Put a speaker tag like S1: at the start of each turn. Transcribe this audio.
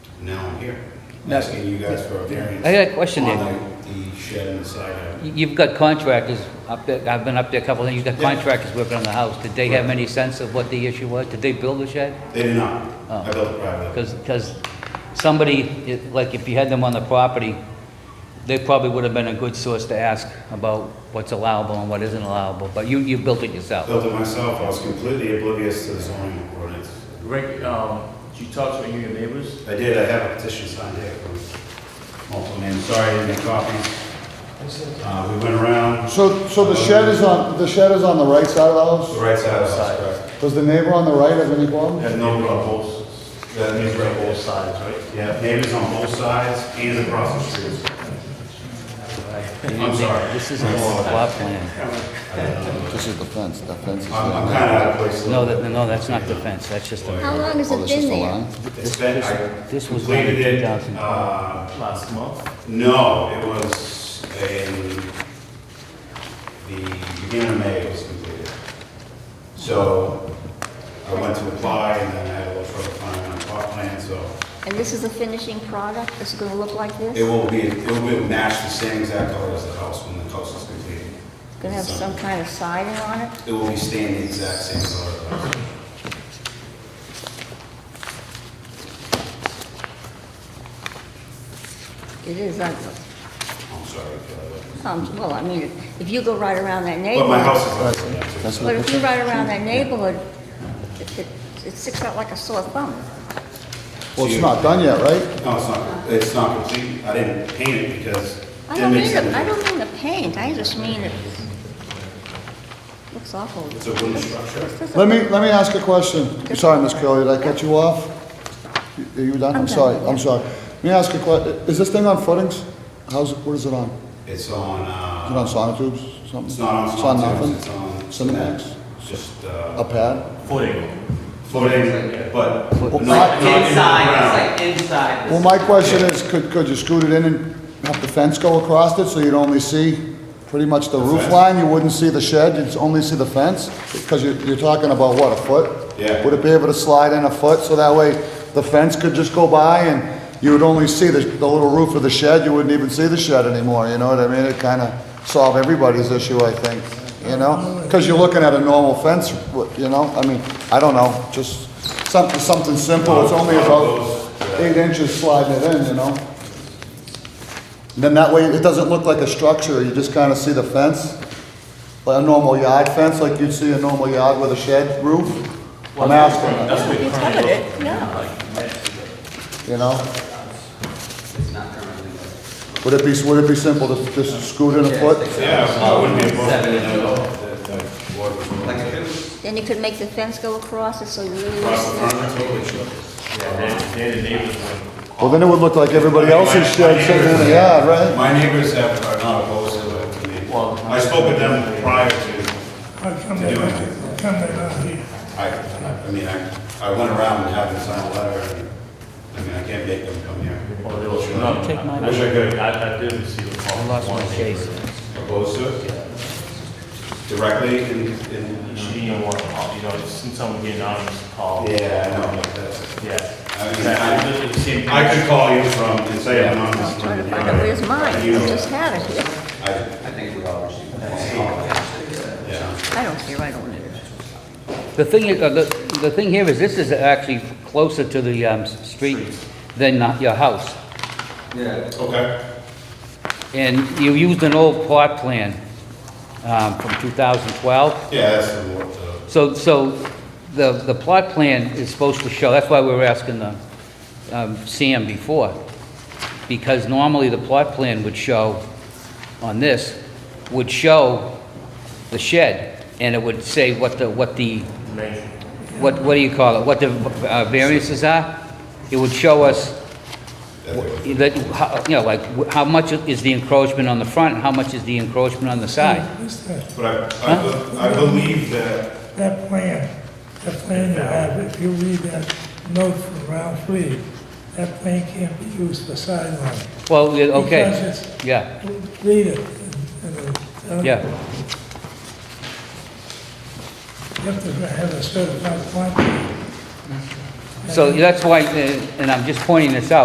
S1: here,
S2: No.
S1: asking you guys for a variance.
S2: I got a question
S1: on
S2: there.
S1: The the shed and the side yard.
S2: You- You've got contractors up there, I've been up there a couple of, you've got
S1: Yeah.
S2: contractors working on the house. Did they have any sense of what the issue was? Did they build the shed?
S1: They did not.
S2: Oh.
S1: I built it privately.
S2: Because, because somebody, it- like if you had them on the property, they probably would have been a good source to ask about what's allowable and what isn't allowable, but you, you built it yourself.
S1: Built it myself. I was completely oblivious to the zoning ordinance.
S3: Rick, um, did you talk to any of your neighbors?
S1: I did, I have a petition signed here from multiple names. Sorry, I didn't make copies. Uh, we went around,
S4: So, so the shed is on, the shed is on the right side of the
S1: the
S4: house?
S1: right side of the house,
S4: Does the neighbor on the right have any problem?
S1: correct? No problems. That means right both sides, right? Yeah, neighbors on both sides and across the streets. I'm sorry.
S2: This isn't a plot plan.
S4: This is the fence, the fence is
S1: I'm, I'm
S4: there.
S1: kinda out of place. a
S2: No,
S1: little
S2: that,
S1: bit.
S2: no, that's not the fence, that's just a,
S5: How long has
S4: Oh,
S5: it
S4: this is
S5: been
S4: the
S5: there?
S4: line?
S1: It's been, I
S2: this was done in
S1: completed it,
S2: 2000.
S1: uh,
S3: Last month?
S1: No, it was in the beginning of May it was completed. So I went to apply and then I had a little trouble finding my plot plan, so
S5: And this is the finishing product? This is gonna look like this?
S1: it will be, it will match the same exact color as the house when the house is completed.
S5: Gonna have some kind of siding on it?
S1: It will be staying the exact same color. as the house.
S5: It is ugly.
S1: I'm sorry. if I look-
S5: Um, well, I mean, if you go right around that
S1: But my house
S5: neighborhood,
S1: is ugly. that's it.
S4: That's
S5: but
S4: not,
S5: if you ride around that neighborhood, it, it, it sticks out like a sore thumb.
S4: well, it's not done yet, right?
S1: No, it's not, it's not complete. I didn't paint it because. it
S5: I
S1: didn't
S5: don't
S1: make
S5: mean
S1: sense.
S5: the, I don't mean the paint, I just mean it looks awful.
S1: It's a wooden structure.
S4: Let me, let me ask a question. Sorry, Miss Curley, did I cut you off? Are you done?
S5: I'm
S4: I'm sorry,
S5: done, yeah.
S4: I'm sorry. Let me ask a que, is this thing on footings? How's, it? what is it on? Is
S1: It's on, uh.
S4: it on sonotubes, something?
S1: It's not on
S4: It's on
S1: Sonotubes,
S4: nothing?
S1: it's on.
S4: Cinemax?
S1: It's Just,
S4: A
S1: uh,
S4: pad?
S3: Footing.
S1: floating, but.
S4: Well,
S1: not-
S4: I-
S1: not in the
S6: Inside,
S1: ground.
S6: it's like inside.
S4: Well, my question is, could, could you scoot it in and have the fence go across it so you'd only see pretty much the roof
S1: fence.
S4: line? You wouldn't see the shed, you'd only see the fence? Because you're, you're talking about what, a foot?
S1: Yeah.
S4: Would it be able to slide in a foot so that way the fence could just go by and you would only see the, the little roof of the shed? You wouldn't even see the shed anymore, you know what I mean? It kind of solve everybody's issue, I think, you know? Because you're looking at a normal fence, you know? I mean, I don't know, just something, something simple. It's only about eight inches sliding it in, you know? Then that way, it doesn't look like a structure, you just kind of see the fence, like a normal yard fence, like you'd see a normal yard with a shed roof. I'm asking,
S3: That's what
S5: You
S3: it
S5: covered
S3: currently
S5: it, no.
S4: you know? Would it be, would it be simple to just scoot in a foot?
S1: Yeah, I wouldn't be opposed to
S6: Seven
S1: it
S6: inches.
S1: at all. The- the board was willing
S6: Like if
S1: to
S6: it was,
S5: Then you could make the fence go across it so you really.
S1: Cross the front, that's totally sure.
S3: Yeah, they're, they're the neighbors.
S4: Well, then it would look like everybody else's shed sitting in the yard, right?
S1: My neighbors have, are not opposed to it to me.
S3: Well-
S1: I spoke with them prior to,
S7: Come back, come back out here.
S1: I, I mean, I, I went around and had them sign a letter. and- I mean, I can't make them come here.
S3: Well, oh, they were, no.
S2: Take my-
S3: I wish I could, I, I did receive a call.
S2: I
S3: from
S2: lost my
S3: one neighbor.
S2: case.
S1: Opposed to it? Directly in, in.
S3: She didn't want to call, you know, since someone getting on this call.
S1: Yeah, I know, but that's.
S3: Yeah.
S1: I mean,
S3: Exactly.
S1: I-
S3: It's the same thing.
S1: I could call you from, and say I'm on this.
S5: I'm trying to find out where's mine,
S1: You
S5: I
S1: know,
S5: just have it here.
S1: I,
S6: I think we all received that.
S1: yeah.
S5: I don't care, I don't need it.
S2: The thing, is- uh, the, the thing here is this is actually closer to the, um, s- street than not your house.
S6: Yeah.
S1: Okay.
S2: And you used an old plot plan, um, from 2012.
S1: Yeah, that's the word, uh,
S2: So, so the, the plot plan is supposed to show, that's why we were asking the, um, Sam before, because normally the plot plan would show, on this, would show the shed, and it would say what the, what the,
S3: Amazing.
S2: what, what do you call it, what the uh, variances are. It would show us,
S1: that word.
S2: that, how- you know, like, how much is the encroachment on the front, and how much is the encroachment on the side.
S7: This, that,
S1: But I- I, be- I believe that,
S7: that plan, that plan you have, if you read that note from Ralph Lee, that plan can't be used for sideline.
S2: Well, yeah, okay,
S7: Because
S2: yeah,
S7: it's, read it. and- and, uh,
S2: yeah.
S7: You have to have a certified plan.
S2: So that's why, uh, and I'm just pointing this out,